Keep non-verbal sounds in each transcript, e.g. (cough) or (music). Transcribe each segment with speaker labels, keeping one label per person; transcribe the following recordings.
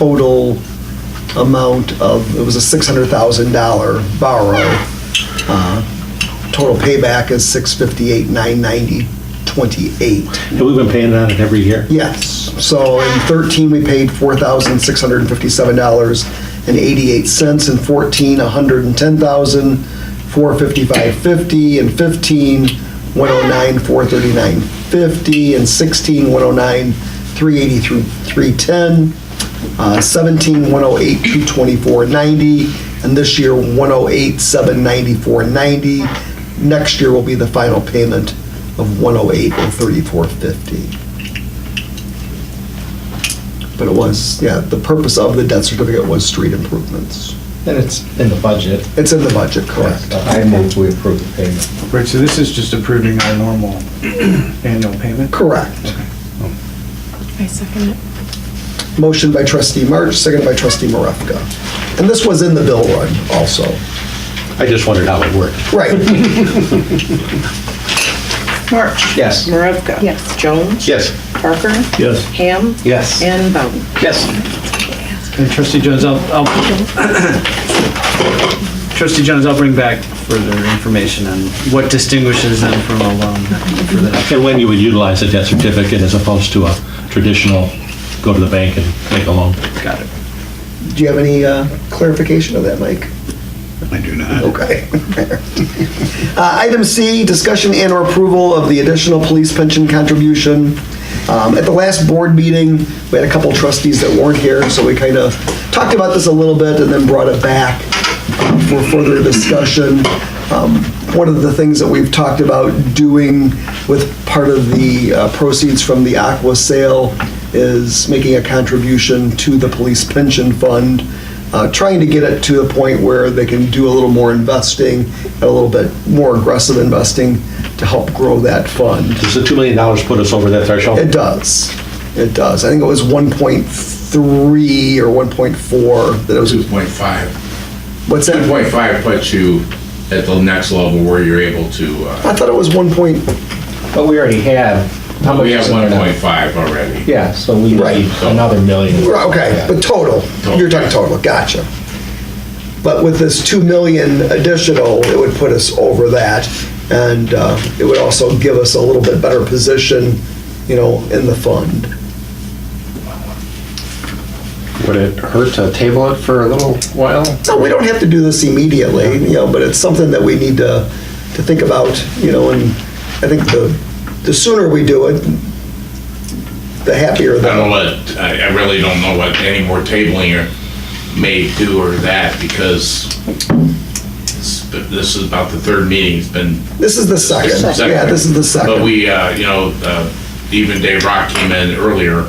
Speaker 1: total amount of, it was a $600,000 borrow. Uh, Total payback is 658, 990, 28.
Speaker 2: And we've been paying on it every year.
Speaker 1: Yes, so in 13, we paid $4,657.88, in 14, $110,455.50, in oh 15, $109,439.50, in oh 16, $109,383.310, uh, 17, $108,224.90, and this year, $108,794.90. Next year will be the final payment of $108,034.50. But it was, yeah, the purpose of the debt certificate was street improvements.
Speaker 3: And it's in the budget. uh,
Speaker 1: It's in the budget, correct?
Speaker 3: I move we approve the payment.
Speaker 4: Right, so this is just approving our normal annual payment?
Speaker 1: Correct.
Speaker 5: I second it.
Speaker 1: Motion by trustee March, seconded by trustee Marevka. And this was in the bill run also.
Speaker 2: I just wondered how it worked.
Speaker 1: Right,
Speaker 6: (laughs)
Speaker 7: March.
Speaker 3: Yes.
Speaker 7: Marevka.
Speaker 5: Yes.
Speaker 7: Jones.
Speaker 2: Yes.
Speaker 7: Parker.
Speaker 2: Yes.
Speaker 7: Ham.
Speaker 3: Yes.
Speaker 7: And Bowden.
Speaker 2: Yes.
Speaker 4: And trustee Jones, I'll, I'll, trustee Jones, I'll bring back further information on what distinguishes them from a loan. for the-
Speaker 2: And when you would utilize a debt certificate as opposed to a traditional, go to the bank and make a loan.
Speaker 4: Got it.
Speaker 1: do you have any uh, clarification of that, Mike?
Speaker 6: I do not.
Speaker 1: Okay. Uh, Item C, discussion and/or approval of the additional police pension contribution. Um, At the last board meeting, we had a couple trustees that weren't here, so we kind of talked about this a little bit and then brought it back um, for further discussion. Um, One of the things that we've talked about doing with part of the uh, proceeds from the Aqua sale is making a contribution to the police pension fund, uh, trying to get it to the point where they can do a little more investing and a little bit more aggressive investing to help grow that fund.
Speaker 2: Does the $2 million put us over that threshold?
Speaker 1: It does. It does. I think it was 1.3 or 1.4 that it was.
Speaker 8: 2.5.
Speaker 1: What's that?
Speaker 8: 2.5 puts you at the next level where you're able to, uh,
Speaker 1: I thought it was 1. point-
Speaker 3: But we already have. how much
Speaker 8: we have
Speaker 3: is in there now?
Speaker 8: 1.5 already.
Speaker 3: Yeah, so we
Speaker 1: Right.
Speaker 3: need another million.
Speaker 1: Right, Okay, but total, you're talking total, gotcha. But with this 2 million additional, it would put us over that, and uh, it would also give us a little bit better position, you know, in the fund.
Speaker 9: Would it hurt to table it for a little while?
Speaker 1: No, we don't have to do this immediately, you know, but it's something that we need to, to think about, you know, and I think the, the sooner we do it, the happier
Speaker 8: I don't know
Speaker 1: the,
Speaker 8: what, I I really don't know what any more tabling or may do or that because it's- but this is about the third meeting, it's been
Speaker 1: this is the second, yeah, this is the
Speaker 8: But
Speaker 1: second.
Speaker 8: we, uh, you know, uh, even Dave Rock came in earlier,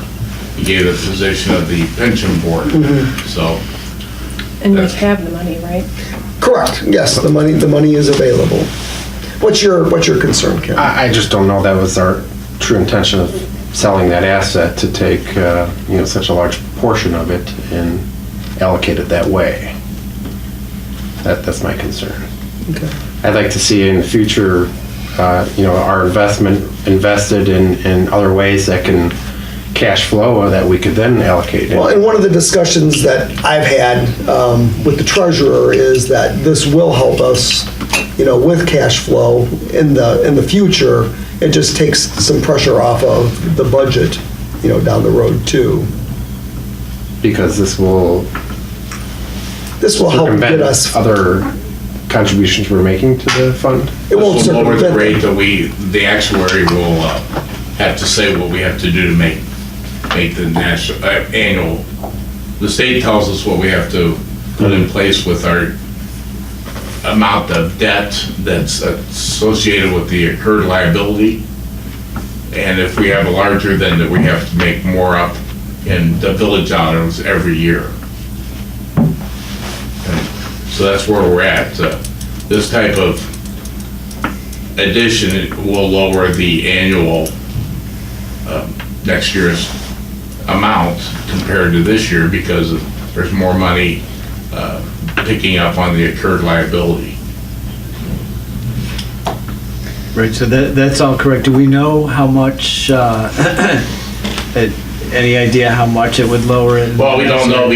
Speaker 8: he gave the position of the pension board,
Speaker 1: Mm-hmm.
Speaker 8: so.
Speaker 5: And we have the money, right?
Speaker 1: Correct, yes, the money, the money is available. What's your, what's your concern, Ken?
Speaker 9: I, I just don't know that was our true intention of selling that asset to take, uh, you know, such a large portion of it and allocate it that way. That, that's my concern.
Speaker 1: Okay.
Speaker 9: I'd like to see in the future, uh, you know, our investment invested in, in other ways that can cash flow that we could then allocate. it.
Speaker 1: Well, and one of the discussions that I've had um, with the treasurer is that this will help us, you know, with cash flow in the, in the future. It just takes some pressure off of the budget, you know, down the road too.
Speaker 9: Because this will
Speaker 1: This will help get
Speaker 9: circumvent
Speaker 1: us,
Speaker 9: other contributions we're making to the fund.
Speaker 1: it won't
Speaker 8: This will lower the
Speaker 1: circumvent.
Speaker 8: rate that we, the actuary will uh, have to say what we have to do to make, make the national, uh, annual. The state tells us what we have to put in place with our amount of debt that's associated with the incurred liability. And if we have a larger, then that we have to make more up in the village items every year. And So that's where we're at. Uh, This type of addition, it will lower the annual um, next year's amount compared to this year because there's more money uh, picking up on the incurred liability.
Speaker 4: Right, so that, that's all correct. Do we know how much, uh, (coughs) it-
Speaker 8: any idea how much it would lower it? in the
Speaker 4: Well, we
Speaker 8: next
Speaker 4: don't know
Speaker 8: year?